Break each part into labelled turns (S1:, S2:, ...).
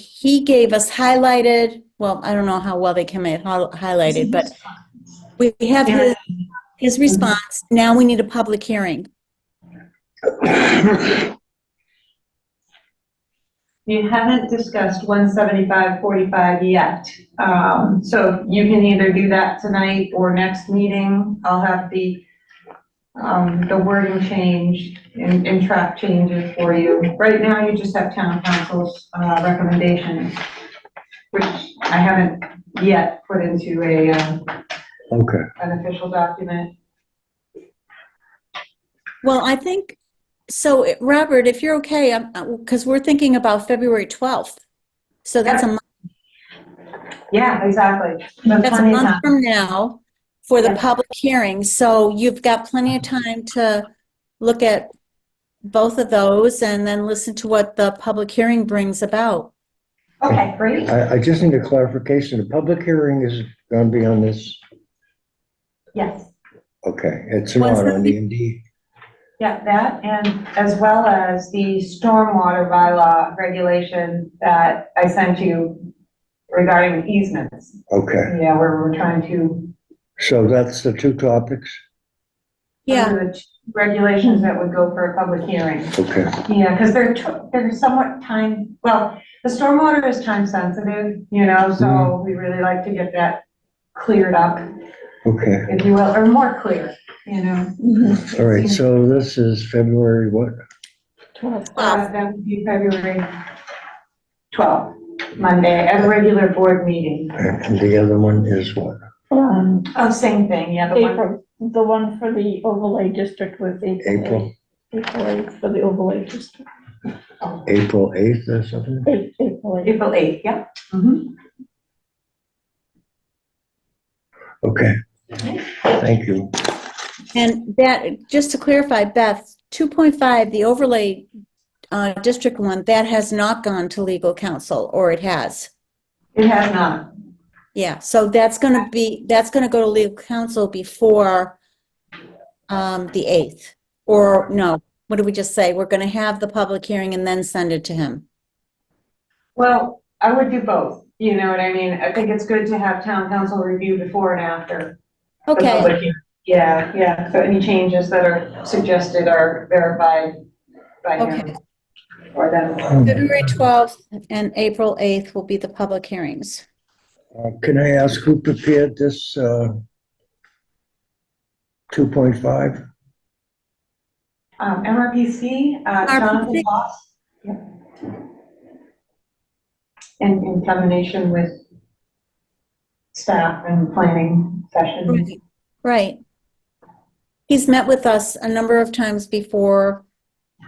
S1: he gave us highlighted, well, I don't know how well they came in hi- highlighted, but we have his, his
S2: Mm-hmm.
S1: response. Now we need a public hearing.
S2: You haven't discussed 17545 yet. Um, So you can either do that tonight or next meeting. I'll have the, um, the wording changed and, and track changes for you. Right now, you just have town council's uh, recommendations, which I haven't yet put into a, uh,
S3: Okay,
S2: an official document.
S1: Well, I think, so eh, Robert, if you're okay, because we're thinking about February 12th. So that's a month,
S2: Yeah, exactly.
S1: that's a
S2: Plenty of time.
S1: month from now for the
S2: Yeah.
S1: public hearing. So you've got plenty of time to look at both of those and then listen to what the public hearing brings about.
S2: Okay, great.
S3: I, I just need a clarification. The public hearing is gonna be on this,
S2: Yes.
S3: okay, it's not on the MD.
S2: Yeah, that, and as well as the stormwater bylaw regulation that I sent you regarding easements.
S3: Okay,
S2: Yeah, where we're trying to.
S3: so that's the two topics?
S1: Yeah,
S2: those are the two Regulations that would go for a public hearing.
S3: Okay,
S2: Yeah, because they're, to- they're somewhat time, well, the stormwater is time sensitive, you know, so
S3: Mhm.
S2: we really like to get that cleared up,
S3: okay.
S2: if you will, or more clear, you know.
S3: All right, so this is February what?
S2: Uh, That would be February 12th, Monday, at a regular board meeting.
S3: And the other one is what?
S4: Um,
S2: Oh, same thing, yeah, the one,
S4: April, the one for the overlay district was April.
S3: April,
S4: eighth. April eighth for the overlay district.
S3: April 8th or something?
S4: Eight- April eighth.
S2: April 8th, yeah. Mm-hmm.
S3: Okay, thank you.
S1: and that, just to clarify, Beth, 2.5, the overlay uh, district one, that has not gone to legal counsel, or it has?
S2: It has not.
S1: Yeah, so that's going to be, that's going to go to legal counsel before um, the 8th. Or, no, what did we just say? We're going to have the public hearing and then send it to him.
S2: Well, I would do both, you know what I mean? I think it's good to have town council review before and after. the
S1: Okay,
S2: public hearing. Yeah, yeah, so any changes that are suggested are verified by
S1: Okay.
S2: him or them.
S3: Um,
S1: February 12th and April 8th will be the public hearings.
S3: Uh, Can I ask who prepared this uh, 2.5?
S2: Um, MRPC, uh, Jonathan
S1: RPC.
S2: Boss. yeah. In, in combination with staff and planning sessions.
S1: Right, Right. He's met with us a number of times before,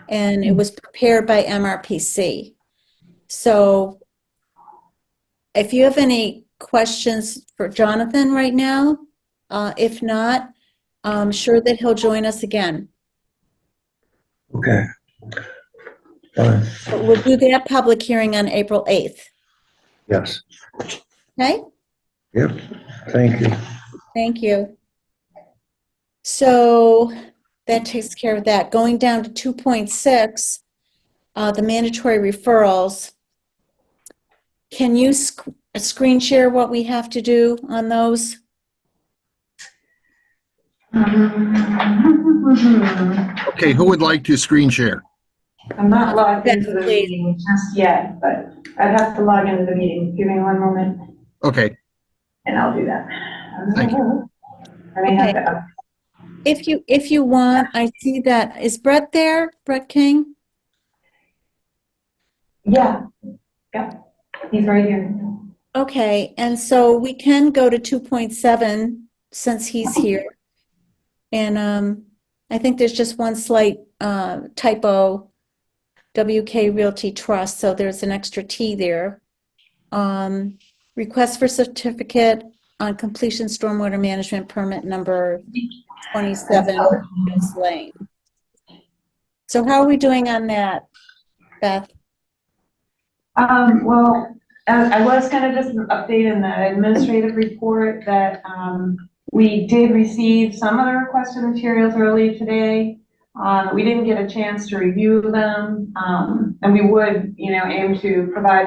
S1: and it was prepared by MRPC. So if you have any questions for Jonathan right now, uh, if not, I'm sure that he'll join us again.
S3: Okay. Fine,
S1: But we'll do that public hearing on April 8th,
S3: yes,
S1: okay?
S3: yep, thank you.
S1: Thank you. So that takes care of that. Going down to 2.6, uh, the mandatory referrals. Can you sc- screen share what we have to do on those?
S2: I'm
S5: Okay, who would like to screen share?
S2: not logged into the
S1: Yes, please.
S2: meeting just yet, but I'd have to log into the meeting. Give me one moment
S5: Okay,
S2: and I'll do that.
S5: Thank
S2: I may have to,
S1: If you, if you want, I see that. Is Brett there? Brett King?
S2: yeah, yeah, he's right here.
S1: Okay, and so we can go to 2.7 since he's here. And um, I think there's just one slight uh, typo, WK Realty Trust, so there's an extra T there. Um, Request for certificate on completion stormwater management permit number 27, Miss Lane. So how are we doing on that, Beth?
S2: Um, well, I, I was kind of just updating the administrative report that, um, we did receive some of the requested materials early today. um, Uh, we didn't get a chance to review them, um, and we would, you know, aim to provide